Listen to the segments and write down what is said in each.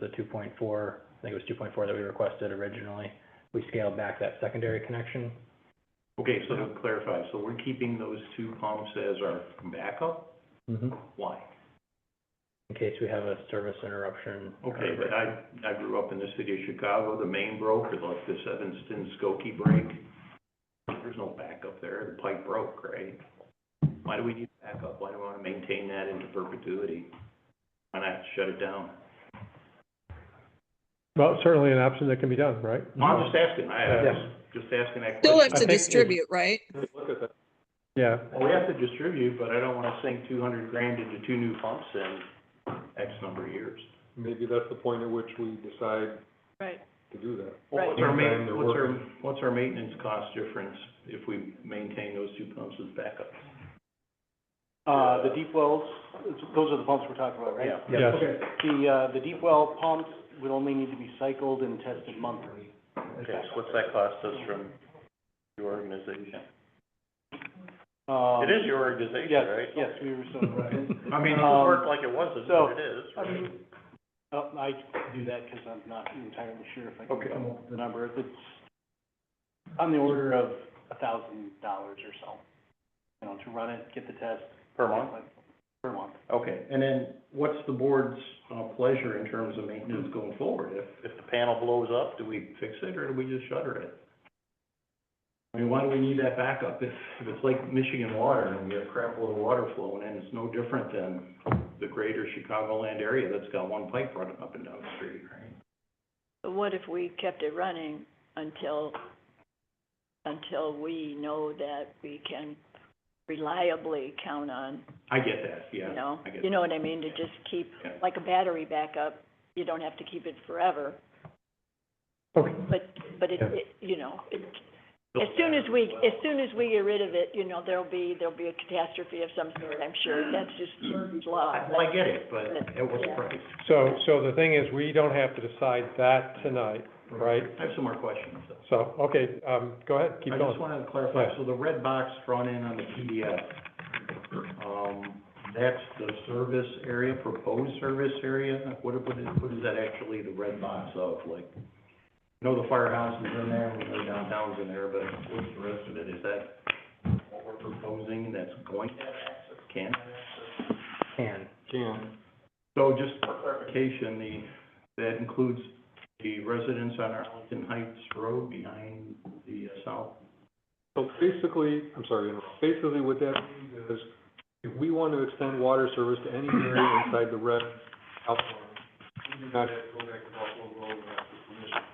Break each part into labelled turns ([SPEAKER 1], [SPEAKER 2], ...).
[SPEAKER 1] the two point four, I think it was two point four that we requested originally. We scaled back that secondary connection.
[SPEAKER 2] Okay, so to clarify, so we're keeping those two pumps as our backup?
[SPEAKER 3] Mm-hmm.
[SPEAKER 2] Why?
[SPEAKER 1] In case we have a service interruption. or-
[SPEAKER 2] Okay, but I, I grew up in the city of Chicago, the main broke, or like this Evanston Skokie break. There's no backup there, the pipe broke, right? Why do we need backup? Why do we wanna maintain that into perpetuity? Why not shut it down?
[SPEAKER 3] Well, certainly an option that can be done, right?
[SPEAKER 2] No, I'm just asking, I, I was just asking that
[SPEAKER 4] Still have
[SPEAKER 3] I
[SPEAKER 2] question.
[SPEAKER 4] to
[SPEAKER 3] think if-
[SPEAKER 4] distribute, right?
[SPEAKER 3] Yeah,
[SPEAKER 2] Well, we have to distribute, but I don't wanna sink two hundred grand into two new pumps in X number of years.
[SPEAKER 5] Maybe that's the point at which we decide
[SPEAKER 6] Right.
[SPEAKER 5] to do that.
[SPEAKER 2] Well, What's our
[SPEAKER 5] Meantime,
[SPEAKER 2] ma,
[SPEAKER 5] they're
[SPEAKER 2] what's our,
[SPEAKER 5] working.
[SPEAKER 2] what's our maintenance cost difference if we maintain those two pumps as backup?
[SPEAKER 7] Uh, the deep wells, it's- those are the pumps we're talking about, right?
[SPEAKER 3] yes.
[SPEAKER 7] The, uh, the deep well pumps would only need to be cycled and tested monthly.
[SPEAKER 2] Okay, so what's that cost us from your organization?
[SPEAKER 7] Um,
[SPEAKER 8] It is your organization,
[SPEAKER 7] Yes,
[SPEAKER 8] right?
[SPEAKER 7] yes, we were so,
[SPEAKER 2] I mean,
[SPEAKER 7] Um,
[SPEAKER 8] Work like it wasn't,
[SPEAKER 7] so-
[SPEAKER 8] but it is,
[SPEAKER 7] I
[SPEAKER 8] right?
[SPEAKER 7] mean, uh, I do that because I'm not entirely sure if I can
[SPEAKER 2] Okay.
[SPEAKER 7] come up with the number. It's on the order of a thousand dollars or so, you know, to run it, get the test.
[SPEAKER 2] per month?
[SPEAKER 7] Per month.
[SPEAKER 2] Okay, and then what's the board's, uh, pleasure in terms of maintenance going forward? If,
[SPEAKER 8] If the panel blows up,
[SPEAKER 2] do we fix it or do we just shutter it? I mean, why do we need that backup if, if it's like Michigan water and we have crap little water flowing in, it's no different than the greater Chicagoland area that's got one pipe running up and down the street, right?
[SPEAKER 6] But what if we kept it running until, until we know that we can reliably count on,
[SPEAKER 2] I get that,
[SPEAKER 6] you
[SPEAKER 2] yeah,
[SPEAKER 6] know?
[SPEAKER 2] I get
[SPEAKER 6] You know what I mean, to just keep,
[SPEAKER 2] Yeah.
[SPEAKER 6] like a battery backup, you don't have to keep it forever,
[SPEAKER 3] Okay,
[SPEAKER 6] but, but it,
[SPEAKER 3] Yeah.
[SPEAKER 6] it, you know, it, as soon as we, as soon as we get rid of it, you know, there'll be, there'll be a catastrophe of some sort, I'm sure, that's just Murphy's law.
[SPEAKER 2] Well, Mm. I get it, but at what
[SPEAKER 6] Yeah.
[SPEAKER 2] price?
[SPEAKER 3] so, so the thing is, we don't have to decide that tonight, right?
[SPEAKER 2] I have some more questions, though.
[SPEAKER 3] So, okay, um, go ahead, keep
[SPEAKER 2] I just
[SPEAKER 3] going.
[SPEAKER 2] wanted to clarify,
[SPEAKER 3] Yeah.
[SPEAKER 2] so the red box drawn in on the PDF, um, that's the service area, proposed service area? What, what is, what is that actually the red box of, like? I know the firehouse is in there, we know downtown's in there, but what's the rest of it? Is that what we're proposing that's going to have access, can?
[SPEAKER 1] Can,
[SPEAKER 5] Can,
[SPEAKER 2] So just for clarification, the, that includes the residents on Arlington Heights Road behind the uh, south
[SPEAKER 5] so basically, I'm sorry, to interrupt. basically what that means is, if we want to extend water service to any area inside the red outline, we do not have to go back to Buffalo Grove and ask for permission.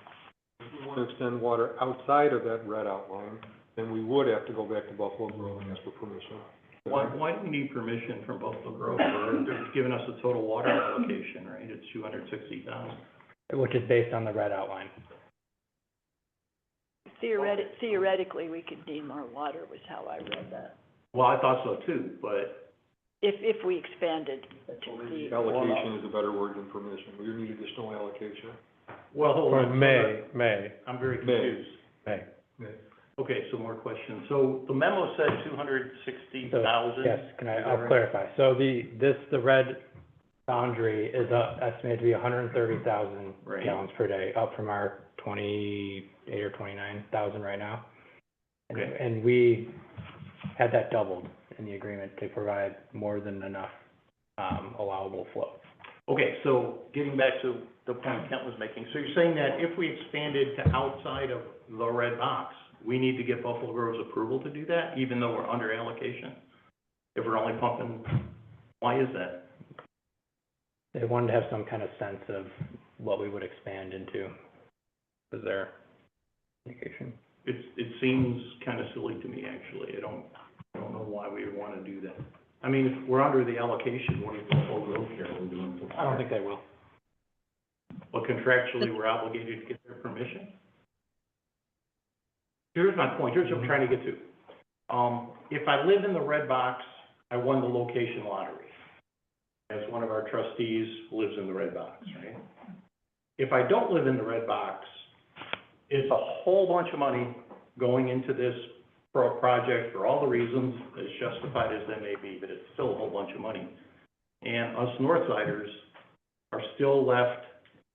[SPEAKER 5] If we want to extend water outside of that red outline, then we would have to go back to Buffalo Grove and ask for permission.
[SPEAKER 2] Why, why do we need permission from Buffalo Grove? They're- They're giving us a total water allocation, right? It's two hundred sixty thousand.
[SPEAKER 1] which is based on the red outline.
[SPEAKER 6] Theoretic, theoretically, we could need more water, was how I read that,
[SPEAKER 2] Well, I thought so too, but
[SPEAKER 6] if, if we expanded to the.
[SPEAKER 5] Allocation is a better word than permission, we need additional allocation.
[SPEAKER 2] well, hold
[SPEAKER 3] For
[SPEAKER 2] on.
[SPEAKER 3] May, May,
[SPEAKER 2] I'm very
[SPEAKER 5] May.
[SPEAKER 2] confused.
[SPEAKER 3] May.
[SPEAKER 2] Okay, so more questions. So the memo said two hundred sixty
[SPEAKER 3] Uh,
[SPEAKER 1] So,
[SPEAKER 2] thousand?
[SPEAKER 1] Yes, can I,
[SPEAKER 2] Is that
[SPEAKER 1] I'll
[SPEAKER 2] right?
[SPEAKER 1] clarify. So the, this, the red boundary is uh, estimated to be hundred and thirty thousand
[SPEAKER 2] Right.
[SPEAKER 1] gallons per day, up from our twenty-eight or twenty-nine thousand right now. And-
[SPEAKER 2] Okay.
[SPEAKER 1] And we had that doubled in the agreement to provide more than enough, um, allowable flow.
[SPEAKER 2] Okay, so getting back to the point Kent was making, so you're saying that if we expanded to outside of the red box, we need to get Buffalo Grove's approval to do that, even though we're under allocation? If we're only pumping, why is that?
[SPEAKER 1] They wanted to have some kind of sense of what we would expand into, was their indication.
[SPEAKER 2] It, it seems kind of silly to me, actually. I don't, I don't know why we would want to do that. I mean, if we're under the allocation, what if Buffalo Grove here, we're doing?
[SPEAKER 1] I don't think they will.
[SPEAKER 2] But contractually, we're obligated to get their permission? Here's my point, here's what I'm trying to get to. Um, if I live in the red box, I won the location lottery. As one of our trustees lives in the red box, right? If I don't live in the red box, it's a whole bunch of money going into this pro- project for all the reasons, as justified as they may be, but it's still a whole bunch of money. And us Northsiders are still left